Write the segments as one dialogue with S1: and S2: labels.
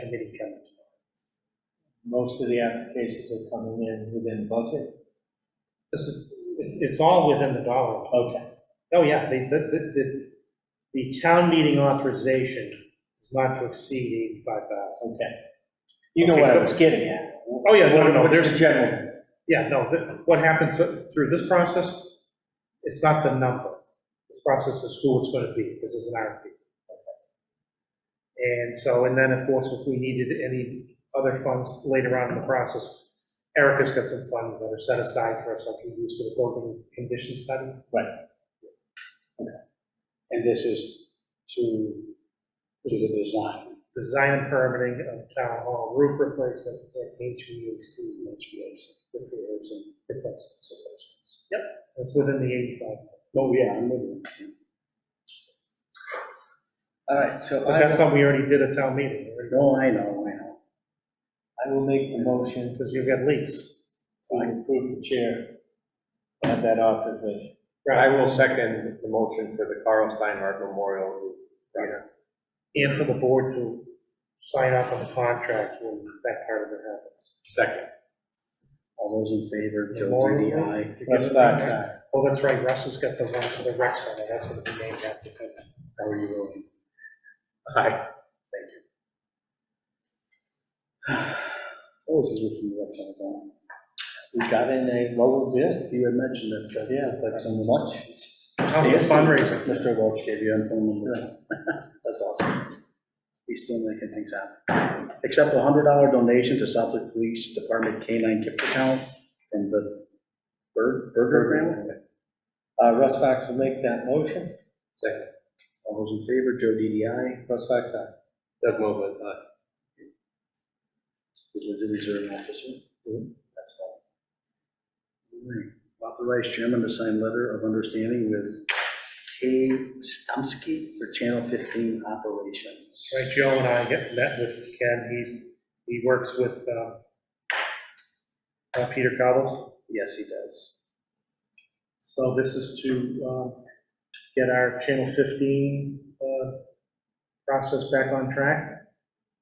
S1: committee coming
S2: Most of the applications are coming in within budget.
S1: This is, it's, it's all within the dollar.
S2: Okay,
S1: Oh, yeah, the, the, the- the, the town meeting authorization is not to exceed eighty-five thousand.
S2: okay. You know
S1: Okay,
S2: what
S1: so-
S2: I was getting at.
S1: Oh, yeah, no, no,
S2: What's the
S1: there's-
S2: General,
S1: Yeah, no, th- what happens through this process, it's not the number. This process is who it's gonna be, because it's an RFP. And so, and then of course, if we needed any other funds later on in the process, Erica's got some funds that are set aside for us, like we use for the building condition study.
S3: And this is to, to the design,
S1: design and permitting of town hall roof replacement and HVAC
S3: HVAC,
S1: repairs and replacement solutions. Yep. That's within the 85.
S3: oh, yeah, I'm with you.
S2: all right, so
S1: But
S2: I
S1: that's
S2: will,
S1: something we already did at town meeting,
S3: No, I know, I know.
S2: I will make the motion
S1: because you've got leaks.
S2: to approve the chair of that authorization.
S4: I will second the motion for the Carl Steinhardt Memorial.
S1: And for the board to sign off on the contract when that part of it happens.
S4: Second.
S3: All those in favor, Joe
S1: Memorial
S3: Didi,
S1: Day?
S3: aye.
S1: You
S2: Russ
S1: give them
S2: Fox,
S1: that?
S2: aye.
S1: Oh, that's right, Russ has got the one for the rec center, that's gonna be named after him.
S3: How are you voting?
S4: Aye.
S3: What was it from the website, Bob?
S2: We got in a lower bid,
S3: You had mentioned that, uh,
S2: yeah, but
S3: that's on the lunch.
S1: How's the fundraiser?
S3: Mr. Welch gave you a phone number. That's awesome. He's still making things happen. Accept a hundred dollar donation to Southwick Police Department K-9 gift account from the Bur- Burger family.
S2: uh, Russ Fox will make that motion,
S4: Second.
S3: All those in favor, Joe DDI.
S2: Russ Fox, aye.
S4: Doug Mogul, aye.
S3: is the reserve officer.
S1: Mm-hmm.
S3: That's all. All right. Authorize chairman to sign letter of understanding with Kay Stumsky for Channel 15 operations.
S1: Right, Joe and I get met with Ken, he's, he works with, uh, uh, Peter Cobbles.
S3: Yes, he does.
S1: So this is to, um, get our Channel 15, uh, process back on track.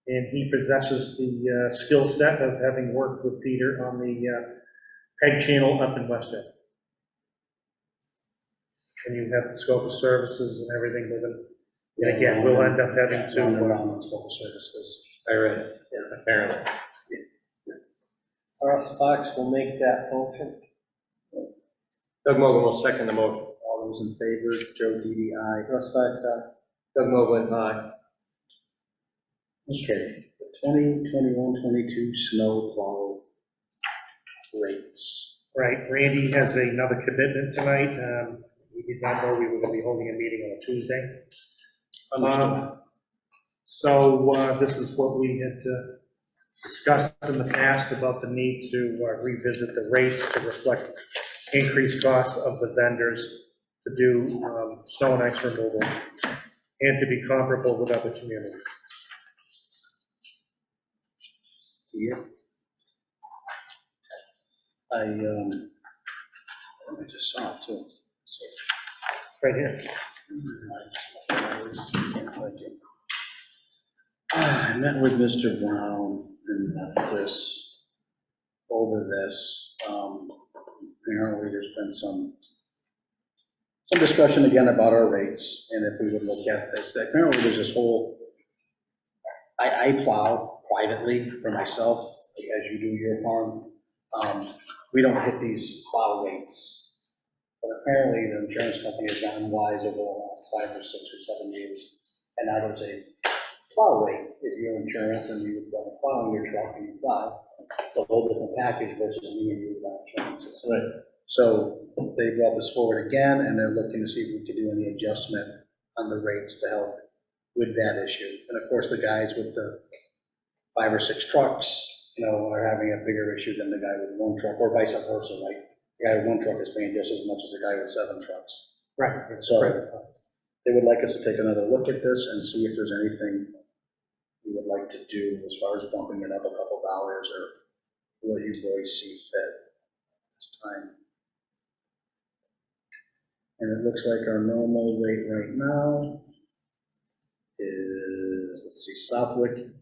S1: And he possesses the, uh, skill set of having worked with Peter on the, uh, PEG channel up in West End. And you have the scope of services and everything with him. And again, we'll end up having to. uh,
S3: Round and round on special services.
S4: I read it, apparently.
S2: Russ Fox will make that motion.
S4: Doug Mogul will second the motion.
S3: All those in favor, Joe DDI.
S2: Russ Fox, aye.
S4: Doug Mogul, aye.
S3: Okay, 2021-22 snow plow rates.
S1: Right, Randy has another commitment tonight. Um, He did not know we were going to be holding a meeting on a Tuesday. Um, So uh, this is what we had uh, discussed in the past about the need to uh, revisit the rates to reflect increased costs of the vendors to do um, snow and ice removal and to be comparable with other communities.
S3: Yep. I, um, I just saw it too. So,
S1: Right here.
S3: I just- Ah, I met with Mr. Brown and uh, Chris over this. Um, Apparently, there's been some, some discussion again about our rates and if we would look at this. Apparently, there's this whole, I, I plow privately for myself, as you do your farm. Um, We don't hit these plow rates. But apparently, the insurance company has gotten wise over the last five or six or seven years. And now there's a plow rate, if you're insurance and you've got a plow in your truck and you plow, it's a whole different package versus me and you without insurance.
S2: Right.
S3: So they brought this forward again, and they're looking to see if we could do any adjustment on the rates to help with that issue. And of course, the guys with the five or six trucks, you know, are having a bigger issue than the guy with one truck, or vice versa, right? the guy with one truck is paying just as much as the guy with seven trucks.
S1: Right.
S3: So they would like us to take another look at this and see if there's anything we would like to do as far as bumping it up a couple dollars or what you boys see fit this time. And it looks like our normal rate right now is, let's see, Southwick